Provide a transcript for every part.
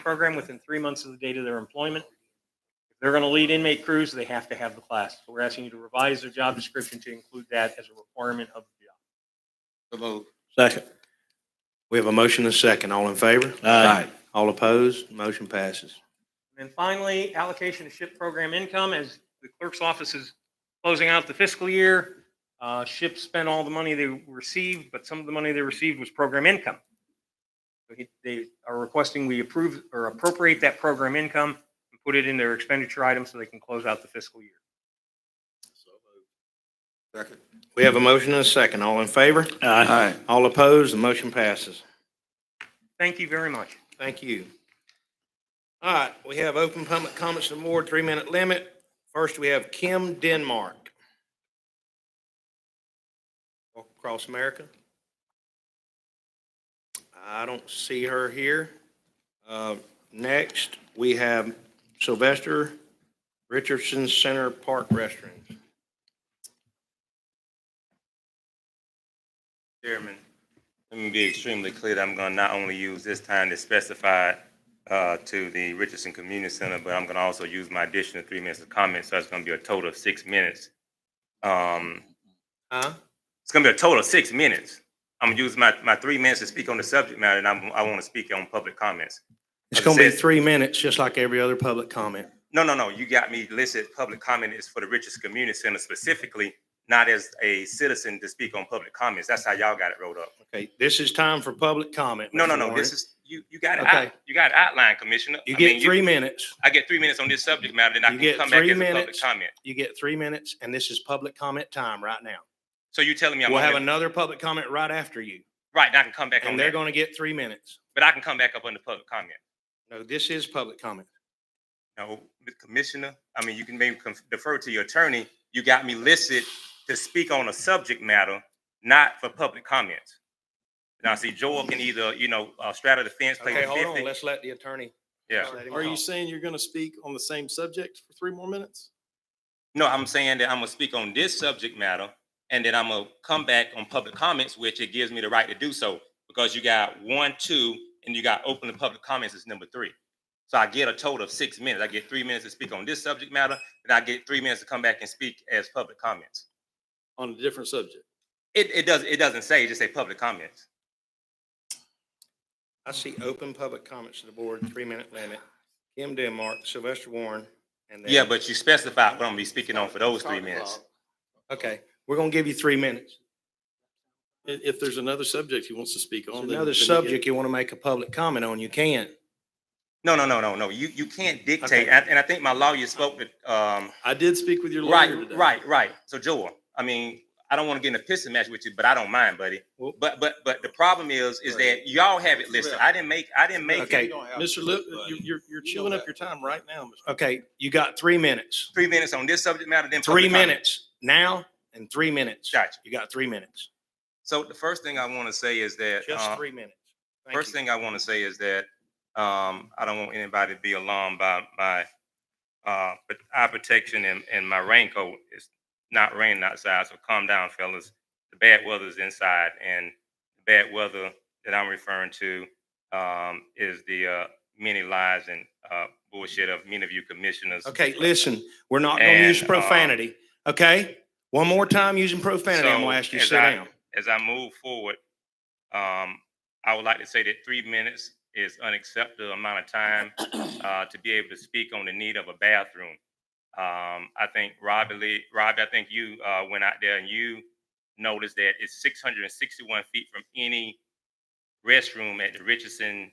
program within three months of the date of their employment. If they're going to lead inmate crews, they have to have the class. So we're asking you to revise their job description to include that as a requirement of the job. So moved. Second. We have a motion and a second. All in favor? Aye. All opposed? Motion passes. And then finally, allocation of SHIP program income, as the clerk's office is closing out the fiscal year. uh, SHIP spent all the money they received, but some of the money they received was program income. So he- They are requesting we approve or appropriate that program income and put it in their expenditure item so they can close out the fiscal year. Second. We have a motion and a second. All in favor? Aye. All opposed? The motion passes. Thank you very much. Thank you. All right, we have open public comments and more, three-minute limit. First, we have Kim Denmark. Walk Across America. I don't see her here. Uh, Next, we have Sylvester Richardson Center Park Restaurants. Chairman, let me be extremely clear that I'm going to not only use this time to specify uh, to the Richardson Community Center, but I'm going to also use my additional three minutes of comment, so it's going to be a total of six minutes. Um, Huh? It's going to be a total of six minutes. I'm going to use my, my three minutes to speak on the subject matter, and I'm, I want to speak on public comments. It's As it going to be says- three minutes, just like every other public comment. No, no, no, you got me listed, public comment is for the Richardson Community Center specifically, not as a citizen to speak on public comments. That's how y'all got it rolled up. Okay, this is time for public comment. No, Mr. no, no. Warren. This is you. You got it. Okay. out- You got it outline, Commissioner. You I get mean, three minutes. I get three minutes on this subject matter, then I You can get come back three as a public minutes. comment. You get three minutes, and this is public comment time right now. So you telling me I'm We'll have only- another public comment right after you, right? and I can come back on and they're that, going to get three minutes. but I can come back up under public comment. No, this is public comment. No, the Commissioner. I mean, you can maybe conf- defer to your attorney. You got me listed to speak on a subject matter, not for public comments. Now, see, Joel can either you know uh, straddle the fence, play Okay, the hold on, fifty. let's let the attorney. yeah. let him Are you talk. saying you're going to speak on the same subject for three more minutes? No, I'm saying that I'm gonna speak on this subject matter, and then I'm gonna come back on public comments, which it gives me the right to do so, because you got one, two, and you got open to public comments is number three. So I get a total of six minutes. I get three minutes to speak on this subject matter, and I get three minutes to come back and speak as public comments. On a different subject? It, it does, it doesn't say, it just say public comments. I see open public comments to the board, three-minute limit. Kim Denmark, Sylvester Warren, and then. Yeah, but you specified what I'm gonna be speaking on for those three minutes. Okay, we're going to give you three minutes. I- If, there's another subject he wants to speak If on. then- Another then he subject you want to make a public comment on, you can. No, no, no, no, no, you, you can't dictate, Okay. and and I think my lawyer spoke to, um, get- I did speak with your lawyer Right, today. right, right. So Joel, I mean, I don't want to get in a pissing match with you, but I don't mind, buddy. Well- But but but the problem is, is that y'all have it listed. I didn't make, I didn't make it. Okay. Mr. Lip, you- you're, you're chewing up your time right now. Mr. Okay, you got three minutes. three minutes on this subject matter, then Three public comment. minutes now and three minutes. Gotcha. You got three minutes. So the first thing I want to say is that Just uh, three minutes. Thank First you. thing I want to say is that um, I don't want anybody to be alarmed by my uh, but eye protection and, and my raincoat. It's not raining outside, so calm down, fellas. The bad weather is inside, and the bad weather that I'm referring to um, is the uh, many lies and uh, bullshit of many of you commissioners. Okay, listen, we're not going to use And, uh, profanity, okay? One more time using profanity, I'm going to So, ask you to as sit I- down. As I move forward, um, I would like to say that three minutes is unacceptable amount of time uh, to be able to speak on the need of a bathroom. Um, I think Robbie, Lee- Robbie, I think you uh, went out there and you noticed that it's 661 feet from any restroom at the Richardson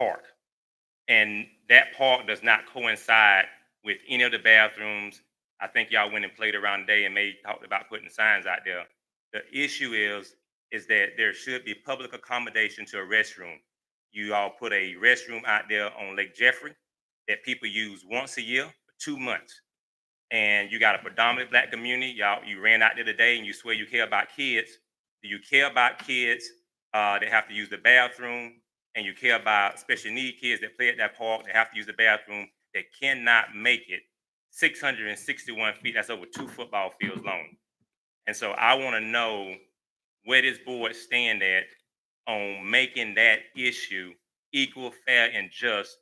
Park. And that park does not coincide with any of the bathrooms. I think y'all went and played around today and may talked about putting signs out there. The issue is, is that there should be public accommodation to a restroom. You all put a restroom out there on Lake Jeffrey that people use once a year for two months. And you got a predominant black community. Y'all, you ran out there today and you swear you care about kids. Do you care about kids uh, that have to use the bathroom? And you care about special need kids that play at that park that have to use the bathroom that cannot make it 661 feet. That's over two football fields long. And so I want to know where this board stand at on making that issue equal, fair, and just